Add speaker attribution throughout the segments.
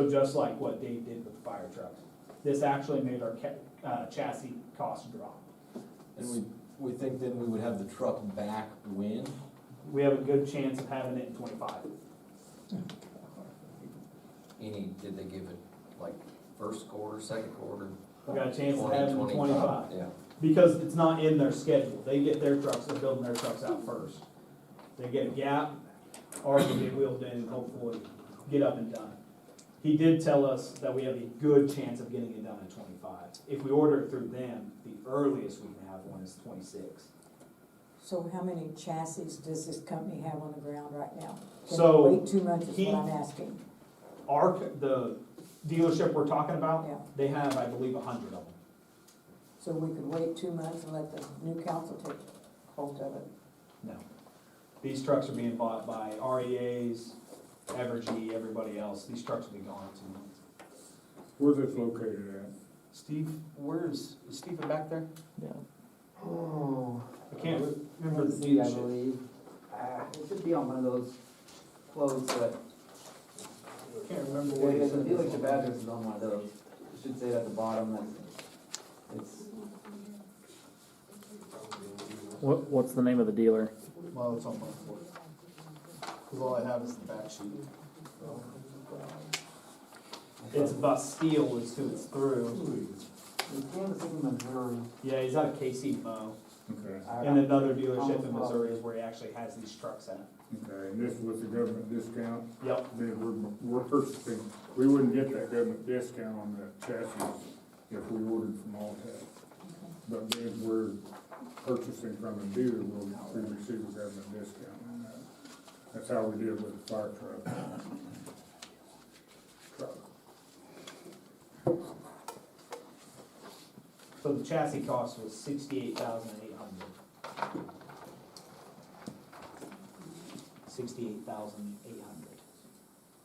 Speaker 1: So Just like what Dave did with the fire trucks, this actually made our ca- uh, chassis cost drop.
Speaker 2: And we, we think then we would have the truck back when?
Speaker 1: We have a good chance of having it in twenty-five.
Speaker 3: Any, did they give it like first quarter, second quarter?
Speaker 1: We got a chance of having it in
Speaker 3: 2025?
Speaker 1: twenty-five,
Speaker 3: Yeah,
Speaker 1: because it's not in their schedule, they get their trucks, they're building their trucks out first. They get a gap, or they get wheeled in, and hopefully get up and done. He did tell us that we have a good chance of getting it done in twenty-five, if we order it through them, the earliest we can have one is twenty-six.
Speaker 4: So how many chassis does this company have on the ground right now? Can
Speaker 1: So,
Speaker 4: it Wait too much is
Speaker 1: he-
Speaker 4: what I'm asking,
Speaker 1: Our, c- the dealership we're talking about,
Speaker 4: yeah.
Speaker 1: They have, I believe, a hundred of them.
Speaker 4: So we could wait two months and let the new council take hold of it.
Speaker 1: No. These trucks are being bought by REAs, Evergy, everybody else. These trucks will be gone in two months.
Speaker 5: Where's this located at?
Speaker 1: Steve, where's, is Stephen back there?
Speaker 6: Oh,
Speaker 1: I can't remember the
Speaker 6: Z, I
Speaker 1: dealership.
Speaker 6: believe. Ah, it should be on one of those clothes that,
Speaker 1: I can't remember
Speaker 6: yeah,
Speaker 1: what
Speaker 6: yeah,
Speaker 1: it
Speaker 6: the dealership
Speaker 1: said.
Speaker 6: address is on one of those. It should say it at the bottom, that's, it's,
Speaker 7: What, what's the name of the dealer?
Speaker 1: Well, it's on my report. Cause all I have is the back sheet. It's Bus Steel is who it's through.
Speaker 6: it's Kansas City, Missouri.
Speaker 1: Yeah, he's out of KC Mo.
Speaker 5: Okay,
Speaker 6: I-
Speaker 1: And another dealership in Missouri is where he actually has these trucks at.
Speaker 5: okay, and this was the government discount,
Speaker 1: Yep,
Speaker 5: then we're, we're purchasing, we wouldn't get that government discount on the chassis if we ordered from Altech. But then we're purchasing from a dealer, we'll, we receive a government discount on that. That's how we did with the fire truck. Truck.
Speaker 1: so the chassis cost was sixty-eight thousand eight hundred. Sixty-eight thousand eight hundred.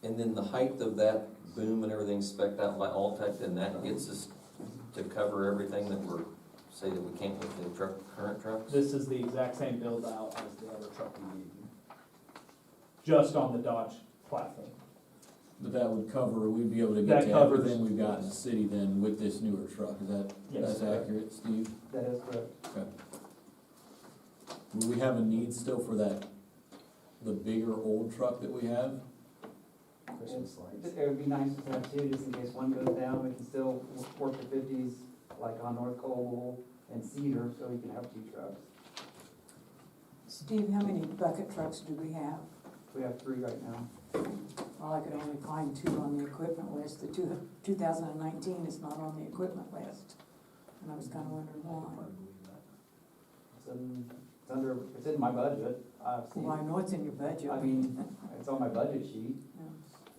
Speaker 3: and then the height of that boom and everything spec'd out by Altech, then that gets us to cover everything that we're, say that we can't with the truck, current trucks?
Speaker 1: This is the exact same build out as the other truck we gave you. Just on the Dodge platform.
Speaker 2: But that would cover, we'd be able to get
Speaker 1: That
Speaker 2: to
Speaker 1: covers-
Speaker 2: everything we've got in the city then with this newer truck, is that,
Speaker 1: Yes.
Speaker 2: that's accurate, Steve?
Speaker 6: That is correct.
Speaker 2: Will we have a need still for that, the bigger old truck that we have?
Speaker 1: Christmas lights.
Speaker 6: It would be nice to have two, just in case one goes down, we can still work the fifties, like on North Cole and Cedar, so we can have two trucks.
Speaker 4: Steve, how many bucket trucks do we have?
Speaker 6: We have three right now.
Speaker 4: Well, I could only find two on the equipment list, the two, two thousand and nineteen is not on the equipment list. And I was kinda wondering why.
Speaker 6: It's in, it's under, it's in my budget. I've seen,
Speaker 4: Well, I know it's in your budget.
Speaker 6: I mean, it's on my budget sheet.
Speaker 4: Yeah.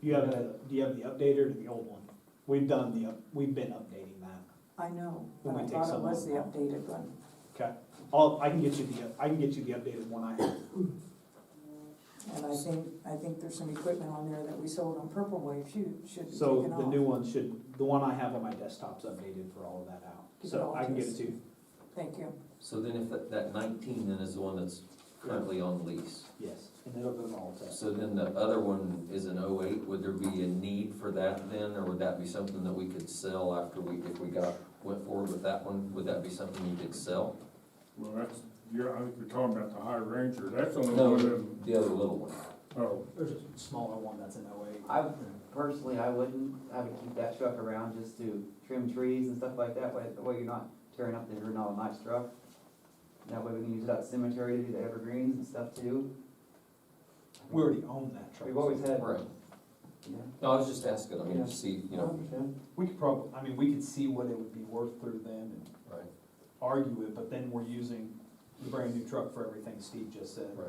Speaker 1: You have, the- do you have the updated or the old one? We've done the, up. we've been updating that.
Speaker 4: I know,
Speaker 1: When we
Speaker 4: but I
Speaker 1: take
Speaker 4: thought it
Speaker 1: someone-
Speaker 4: was the updated one.
Speaker 1: Okay, I'll, I can get you the, I can get you the updated one I have.
Speaker 4: And I think, I think there's some equipment on there that we sold on Purple Wave, shoot, should be taken
Speaker 1: So
Speaker 4: off.
Speaker 1: the new one should, the one I have on my desktop's updated for all of that out. So I can get it to you,
Speaker 4: Thank you.
Speaker 3: So then if that, that nineteen then is the one that's currently on lease,
Speaker 1: yes, and it'll go to all tests.
Speaker 3: so then the other one is an oh eight, would there be a need for that then, or would that be something that we could sell after we, if we got, went forward with that one, would that be something you could sell?
Speaker 5: Well, that's, you're, I think you're talking about the High Ranger, that's the only
Speaker 3: No,
Speaker 5: one
Speaker 3: the
Speaker 5: that,
Speaker 3: the other little one.
Speaker 5: oh.
Speaker 1: There's a smaller one that's in OA.
Speaker 6: I, personally, I wouldn't, I would keep that truck around just to trim trees and stuff like that, way, that way you're not tearing up the Renal Nice truck. That way we can use it at cemetery to do the evergreens and stuff too.
Speaker 1: We already own that truck.
Speaker 6: We've always had,
Speaker 3: Right,
Speaker 6: yeah.
Speaker 3: no, I was just asking, I mean, to see, you know,
Speaker 1: We could prob, I mean, we could see what it would be worth through them and
Speaker 3: right,
Speaker 1: argue it, but then we're using the brand new truck for everything Steve just said.
Speaker 3: right.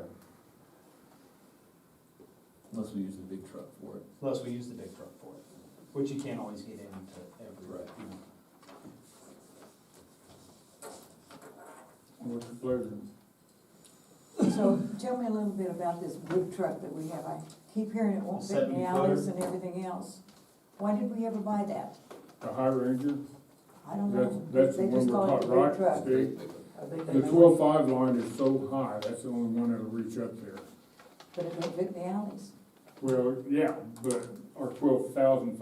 Speaker 2: Unless we use the big truck for it.
Speaker 1: Plus, we use the big truck for it, which you can't always get into every,
Speaker 2: Right.
Speaker 1: you know.
Speaker 5: What's your pleasure?
Speaker 4: So tell me a little bit about this wood truck that we have. I keep hearing it won't fit in
Speaker 1: 70
Speaker 4: the alleys and everything else. Why did we ever buy that?
Speaker 5: The High Ranger,
Speaker 4: I don't
Speaker 5: that's,
Speaker 4: know.
Speaker 5: that's the
Speaker 4: They
Speaker 5: one
Speaker 4: just
Speaker 5: we're
Speaker 4: call it
Speaker 5: taught,
Speaker 4: the wood
Speaker 5: right,
Speaker 4: truck.
Speaker 5: Steve?
Speaker 6: I think
Speaker 5: The twelve-five line is so high, that's the only one that'll reach up there.
Speaker 4: But it don't fit in the alleys.
Speaker 5: Well, yeah, but our twelve thousand